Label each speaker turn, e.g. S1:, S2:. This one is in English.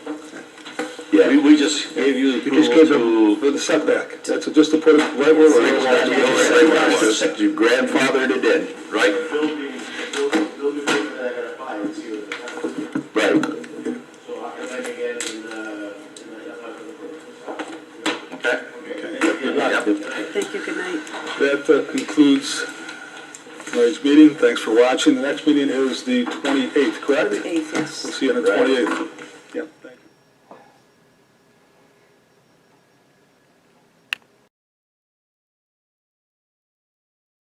S1: Yeah.
S2: We, we just gave you the
S1: You just gave
S2: approval
S1: them
S2: to.
S1: for the setback, that's just to put it right where
S2: Right
S1: it was.
S2: where it was. You grandfathered it in, right?
S3: building, building, building that I gotta buy, it's here.
S2: Right.
S3: So I can make it in, uh, in the, uh, that's not for the purpose.
S2: Okay. Yep.
S4: Thank you, good night.
S1: That uh, concludes tonight's meeting, thanks for watching, the next meeting is the twenty-eighth, correct?
S4: Eighth,
S1: We'll
S4: yes.
S1: see you on the twenty-eighth.